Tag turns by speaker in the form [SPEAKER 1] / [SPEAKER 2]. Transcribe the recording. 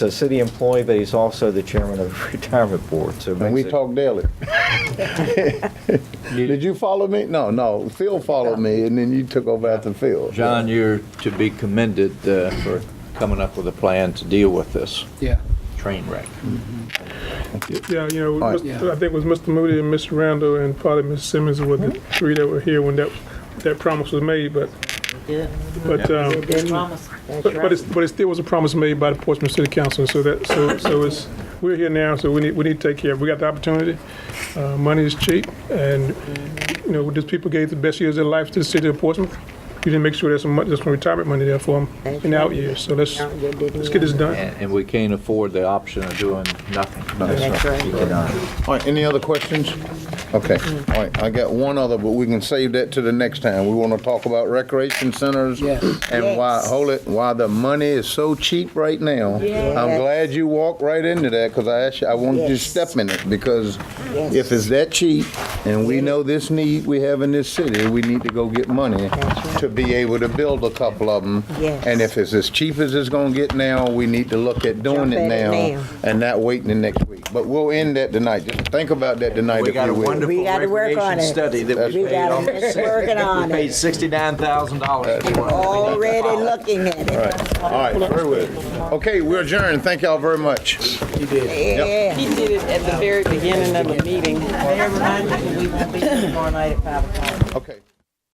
[SPEAKER 1] a city employee, but he's also the chairman of the retirement board, so. it
[SPEAKER 2] And we
[SPEAKER 1] makes it-
[SPEAKER 2] talk daily. Did you follow me? No, no. Phil followed me, and then you took over after Phil.
[SPEAKER 3] John, you're to be commended uh, for coming up with a plan to deal with this
[SPEAKER 4] Yeah.
[SPEAKER 3] train wreck.
[SPEAKER 5] Yeah, you know,
[SPEAKER 2] All right.
[SPEAKER 5] Mr. I think it was Mr. Moody and Mr. Randall and probably Ms. Simmons were the three that were here when that, that promise was made, but,
[SPEAKER 6] Yeah,
[SPEAKER 5] but, um,
[SPEAKER 6] they promised. That's
[SPEAKER 5] but but
[SPEAKER 6] right.
[SPEAKER 5] it's, but it still was a promise made by the Portsmouth City Council, so that, so, so it's, we're here now, so we need, we need to take care of, it. we got the opportunity. Uh, money is cheap, and, you know, these people gave the best years of their life to the city of Portsmouth. You didn't make sure there's some, mon- there's some retirement money there for them
[SPEAKER 6] That's
[SPEAKER 5] in the out
[SPEAKER 6] right.
[SPEAKER 5] years, so let's,
[SPEAKER 6] No, you didn't
[SPEAKER 5] let's get this
[SPEAKER 6] know.
[SPEAKER 5] done.
[SPEAKER 3] And and we can't afford the option of doing nothing.
[SPEAKER 6] That's right.
[SPEAKER 2] All right, any other questions? Okay, all right, I got one other, but we can save that to the next time. We want to talk about recreation centers.
[SPEAKER 4] Yes.
[SPEAKER 2] And why,
[SPEAKER 6] Yes.
[SPEAKER 2] hold it, why the money is so cheap right now. I'm
[SPEAKER 6] Yes.
[SPEAKER 2] glad you walked right into that, because I asked you, I wanted you to
[SPEAKER 6] Yes.
[SPEAKER 2] step in it, because if it's that cheap, and we know this need we have in this city, we need to go get money
[SPEAKER 6] That's right.
[SPEAKER 2] to be able to build a couple of them.
[SPEAKER 6] Yes.
[SPEAKER 2] And if it's as cheap as it's gonna get now, we need to look at doing
[SPEAKER 6] Jump
[SPEAKER 2] it
[SPEAKER 6] at it
[SPEAKER 2] now
[SPEAKER 6] now.
[SPEAKER 2] and not waiting the next week. But we'll end that tonight. Just think about that tonight if you will.
[SPEAKER 6] We gotta work on it.
[SPEAKER 3] Study that we
[SPEAKER 6] We
[SPEAKER 3] paid
[SPEAKER 6] got
[SPEAKER 3] off.
[SPEAKER 6] to working on
[SPEAKER 3] Paid
[SPEAKER 6] it,
[SPEAKER 3] sixty-nine thousand dollars.
[SPEAKER 6] already looking at it.
[SPEAKER 2] All right, very well. Okay, we're adjourned. Thank y'all very much.
[SPEAKER 6] Yeah.
[SPEAKER 7] He did it at the very beginning of the meeting.
[SPEAKER 6] They reminded me we won't be here tomorrow night at 5 o'clock.
[SPEAKER 2] Okay.